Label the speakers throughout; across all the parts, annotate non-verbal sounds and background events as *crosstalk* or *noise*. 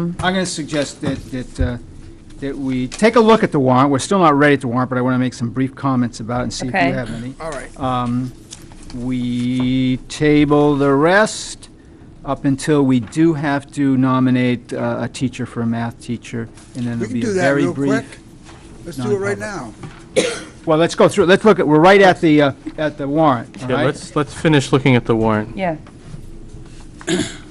Speaker 1: I'm going to suggest that, that, uh, that we take a look at the warrant. We're still not ready to warrant, but I want to make some brief comments about it and see if you
Speaker 2: Okay.
Speaker 1: have any.
Speaker 3: All right.
Speaker 1: Um, We table the rest up until we do have to nominate uh, a teacher for a math teacher, and then it'll
Speaker 3: We can
Speaker 1: be a
Speaker 3: do that
Speaker 1: very
Speaker 3: real quick.
Speaker 1: brief.
Speaker 3: Let's do it right
Speaker 1: non-public.
Speaker 3: now.
Speaker 1: Well, let's go through, it. let's look at, we're right at the, uh, at the warrant, all
Speaker 4: Yeah,
Speaker 1: right?
Speaker 4: let's, let's finish looking at the warrant.
Speaker 2: Yeah,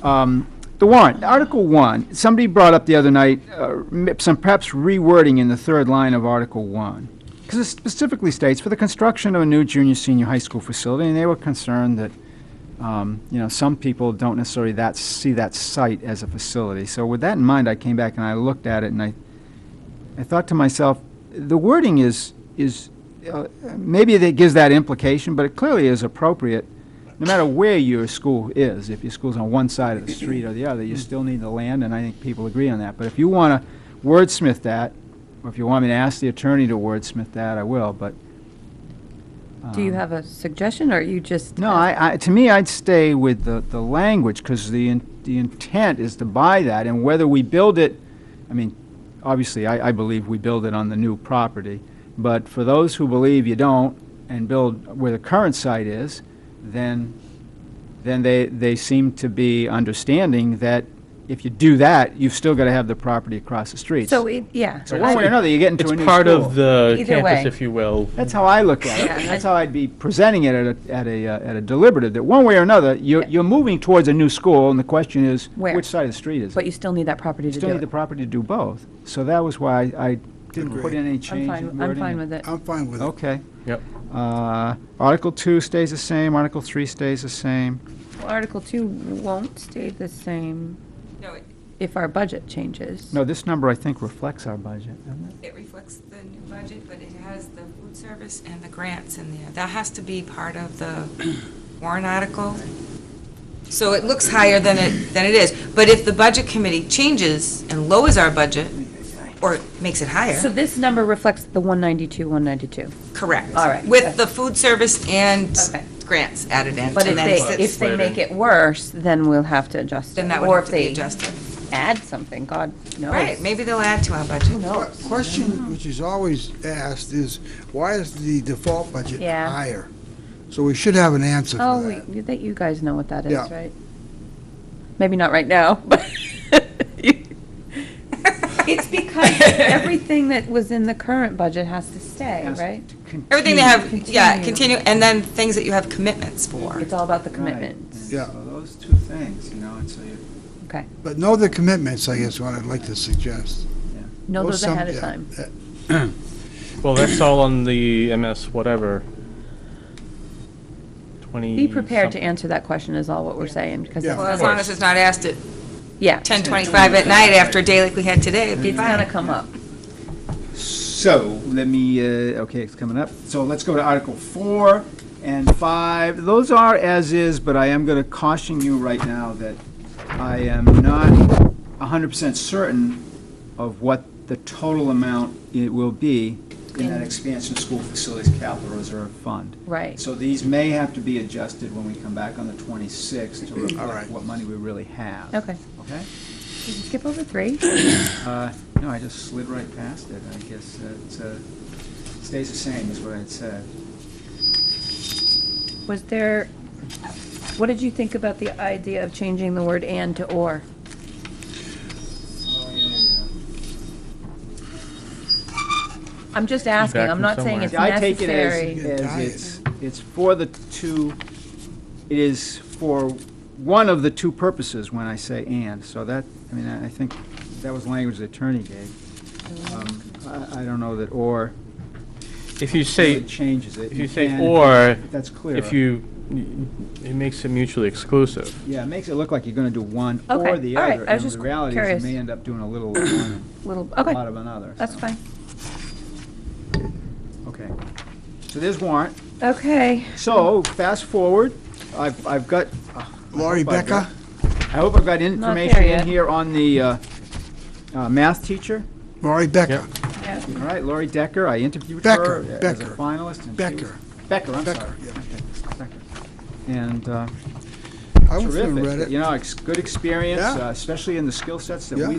Speaker 1: um, the warrant, Article 1, somebody brought up the other night uh, m- some perhaps rewording in the third line of Article 1. Because it specifically states, for the construction of a new junior senior high school facility, and they were concerned that, um, you know, some people don't necessarily that, see that site as a facility. So with that in mind, I came back and I looked at it and I, I thought to myself, the wording is, is, uh, maybe that gives that implication, but it clearly is appropriate no matter where your school is, if your school's on one side of the street or the other, you still need the land, and I think people agree on that. But if you want to wordsmith that, or if you want me to ask the attorney to wordsmith that, I will, but.
Speaker 2: do you
Speaker 1: um,
Speaker 2: have a suggestion, or are you just?
Speaker 1: No, I, I, to me, I'd stay with the, the language, because the, in- the intent is to buy that, and whether we build it, I mean, obviously, I, I believe we build it on the new property, but for those who believe you don't, and build where the current site is, then, then they, they seem to be understanding that if you do that, you've still got to have the property across the street.
Speaker 2: So, it- yeah.
Speaker 1: So one way or another, you get into
Speaker 4: It's
Speaker 1: a new
Speaker 4: part
Speaker 1: school.
Speaker 4: of the
Speaker 2: Either way.
Speaker 4: campus, if you will.
Speaker 1: That's how I look at it.
Speaker 2: Yeah,
Speaker 1: and
Speaker 2: I-
Speaker 1: That's how I'd be presenting it at a, at a, uh, at a deliberative, that one way or another, you're,
Speaker 2: Yeah.
Speaker 1: you're moving towards a new school, and the question is,
Speaker 2: Where?
Speaker 1: which side of the street is
Speaker 2: But
Speaker 1: it?
Speaker 2: you still need that property
Speaker 1: You
Speaker 2: to
Speaker 1: still
Speaker 2: do
Speaker 1: need the
Speaker 2: it.
Speaker 1: property to do both. So that was why I didn't put
Speaker 3: Agreed.
Speaker 1: in any
Speaker 2: I'm
Speaker 1: change in
Speaker 2: fine, I'm
Speaker 1: wording.
Speaker 2: fine with it.
Speaker 3: I'm fine with it.
Speaker 1: Okay.
Speaker 4: Yep.
Speaker 1: Uh, Article two stays the same, Article three stays the same.
Speaker 2: Article two won't stay the same
Speaker 5: No, it,
Speaker 2: if our budget changes.
Speaker 1: No, this number, I think, reflects our budget, doesn't it?
Speaker 5: it reflects the new budget, but it has the food service and the grants in there. That has to be part of the *clears throat* warrant article. So it looks higher than it, than it is. But if the budget committee changes and lowers our budget, or makes it
Speaker 2: So
Speaker 5: higher,
Speaker 2: this number reflects the one ninety-two, one ninety-two.
Speaker 5: correct.
Speaker 2: All right.
Speaker 5: With the food service and
Speaker 2: Okay.
Speaker 5: grants added in.
Speaker 2: But if
Speaker 5: and then
Speaker 2: they,
Speaker 5: sits-
Speaker 2: if they make it worse, then we'll have to adjust it.
Speaker 5: Then that would have to be adjusted.
Speaker 2: Or if they add something, God knows.
Speaker 5: Right, maybe they'll add to our budget. *laughs*
Speaker 3: Qu- Question which is always asked is, why is the default budget
Speaker 2: Yeah.
Speaker 3: higher? So we should have an answer
Speaker 2: Oh,
Speaker 3: for that.
Speaker 2: we- you- that you guys know what that is,
Speaker 3: Yeah.
Speaker 2: right? Maybe not right now, *laughs* but *laughs* it's because
Speaker 1: *laughs*
Speaker 2: everything that was in the current budget has to stay,
Speaker 1: Has
Speaker 2: right?
Speaker 1: to continue.
Speaker 5: Everything they have, yeah,
Speaker 2: Continue.
Speaker 5: continue, and then things that you have commitments for.
Speaker 2: It's all about the
Speaker 1: Right.
Speaker 2: commitments.
Speaker 3: Yeah.
Speaker 1: So those two things, you know, and so you
Speaker 2: Okay.
Speaker 3: But know the commitments, I guess, what I'd like to suggest.
Speaker 1: Mm-hmm.
Speaker 2: Know
Speaker 3: Or
Speaker 2: those
Speaker 3: some-
Speaker 2: ahead of
Speaker 3: yeah,
Speaker 2: time.
Speaker 3: uh,
Speaker 4: Well, that's all on the MS whatever. Twenty.
Speaker 1: Mm-hmm.
Speaker 2: Be prepared to
Speaker 4: something.
Speaker 2: answer that question is all what we're saying, because,
Speaker 3: Yeah.
Speaker 5: Well,
Speaker 2: it's-
Speaker 5: as long as it's not asked at
Speaker 2: yeah,
Speaker 5: 10:25 at night after a day like we had today, it'd be
Speaker 2: it's gonna
Speaker 5: fine.
Speaker 2: come up.
Speaker 1: So, let me, uh, okay, it's coming up. So let's go to Article 4 and 5. Those are as is, but I am going to caution you right now that I am not 100% certain of what the total amount it will be in that expansion school facilities capital reserve fund.
Speaker 2: Right.
Speaker 1: So these may have to be adjusted when we come back on the 26th to reflect
Speaker 3: right.
Speaker 1: what money we really have.
Speaker 2: Okay.
Speaker 1: Okay?
Speaker 2: Did you skip over three?
Speaker 1: Uh, No, I just slid right past it. I guess it uh, stays the same, is what I'd said.
Speaker 2: Was there, what did you think about the idea of changing the word "and" to "or"?
Speaker 1: Oh, yeah, yeah.
Speaker 2: I'm just asking,
Speaker 4: Feedback
Speaker 2: I'm
Speaker 4: from
Speaker 2: not saying it's
Speaker 1: I take it as,
Speaker 2: necessary.
Speaker 1: as it's, it's for the two, it is for one of the two purposes when I say "and." So that, I mean, I I think that was language the attorney gave. Um, I I don't know that "or"
Speaker 4: If you
Speaker 1: really
Speaker 4: say,
Speaker 1: changes it.
Speaker 4: if you say
Speaker 1: can-
Speaker 4: or,
Speaker 1: That's clear.
Speaker 4: if you, it makes it mutually exclusive.
Speaker 1: Yeah, it makes it look like you're going to do one
Speaker 2: Okay,
Speaker 1: or the
Speaker 2: all
Speaker 1: other.
Speaker 2: right, I was
Speaker 1: and
Speaker 2: just
Speaker 1: the reality is
Speaker 2: curious.
Speaker 1: you may end up doing a
Speaker 2: *coughs*
Speaker 1: little of one and
Speaker 2: Little,
Speaker 1: a lot
Speaker 2: okay,
Speaker 1: of another.
Speaker 2: that's
Speaker 1: so.
Speaker 2: fine.
Speaker 1: Okay. So there's warrant.
Speaker 2: Okay,
Speaker 1: So, fast forward, I've, I've got, I
Speaker 3: Laurie
Speaker 1: hope I've
Speaker 3: Uh, Becker?
Speaker 1: got- I hope I've got information
Speaker 2: yet.
Speaker 1: in here on the uh, uh, math teacher.
Speaker 3: Laurie Becker,
Speaker 4: Yep.
Speaker 1: All right, Lori Decker, I interviewed
Speaker 3: Becker,
Speaker 1: her as a
Speaker 3: Becker,
Speaker 1: finalist. and she
Speaker 3: Becker.
Speaker 1: was- Becker, I'm
Speaker 3: Becker,
Speaker 1: sorry. Becker. And uh,
Speaker 3: I went through and read
Speaker 1: terrific,
Speaker 3: it.
Speaker 1: you know, it's good experience,
Speaker 3: Yeah.
Speaker 1: uh, especially in the skill sets that
Speaker 3: Yeah.
Speaker 1: we